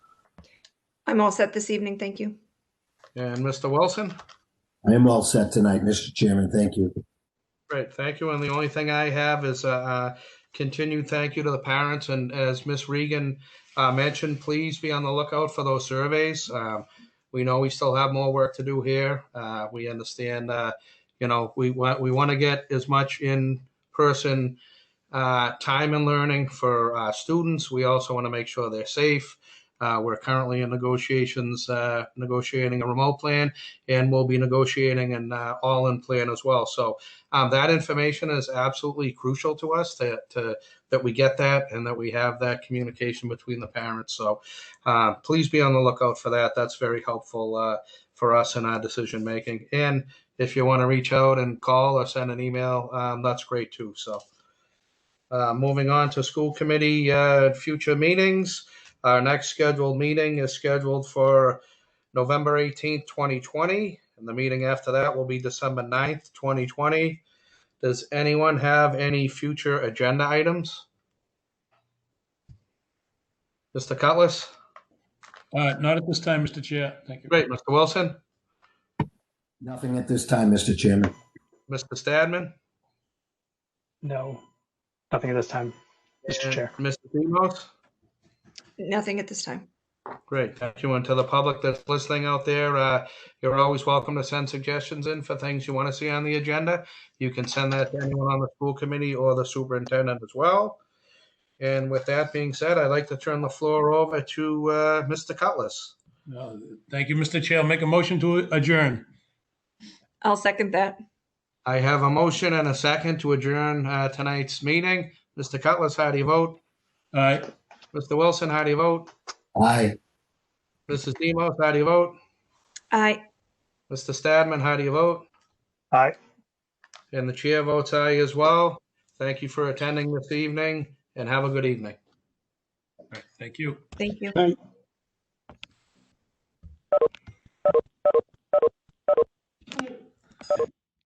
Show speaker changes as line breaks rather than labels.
I'm all set this evening, thank you.
And Mr. Wilson?
I am all set tonight, Mr. Chairman. Thank you.
Great, thank you. And the only thing I have is a uh, continued thank you to the parents. And as Miss Regan uh, mentioned, please be on the lookout for those surveys. Um, we know we still have more work to do here. Uh, we understand, uh, you know, we want we want to get as much in person uh, time and learning for uh, students. We also want to make sure they're safe. Uh, we're currently in negotiations, uh, negotiating a remote plan, and we'll be negotiating an uh, all-in plan as well. So um, that information is absolutely crucial to us to, to that we get that and that we have that communication between the parents. So uh, please be on the lookout for that. That's very helpful uh, for us in our decision making. And if you want to reach out and call or send an email, um, that's great too. So uh, moving on to school committee uh, future meetings. Our next scheduled meeting is scheduled for November 18th, 2020. And the meeting after that will be December 9th, 2020. Does anyone have any future agenda items? Mr. Cutlass?
Uh, Not at this time, Mr. Chair. Thank you.
Great, Mr. Wilson?
Nothing at this time, Mr. Chairman.
Mr. Stadman?
No, nothing at this time, Mr.
and
Chair.
Mr. Demos?
Nothing at this time.
Great, thank you. And to the public that's listening out there, uh, you're always welcome to send suggestions in for things you want to see on the agenda. You can send that to anyone on the school committee or the superintendent as well. And with that being said, I'd like to turn the floor over to uh, Mr. Cutlass.
No, Thank you, Mr. Chair. I'll Make a motion to adjourn.
I'll second that.
I have a motion and a second to adjourn uh, tonight's meeting. Mr. Cutlass, how do you vote?
All right.
Mr. Wilson, how do you vote?
Aye.
Mrs. Demos, how do you vote?
Aye.
Mr. Stadman, how do you vote?
Aye.
And the chair votes aye as well. Thank you for attending this evening and have a good evening.
Thank you.
Thank you.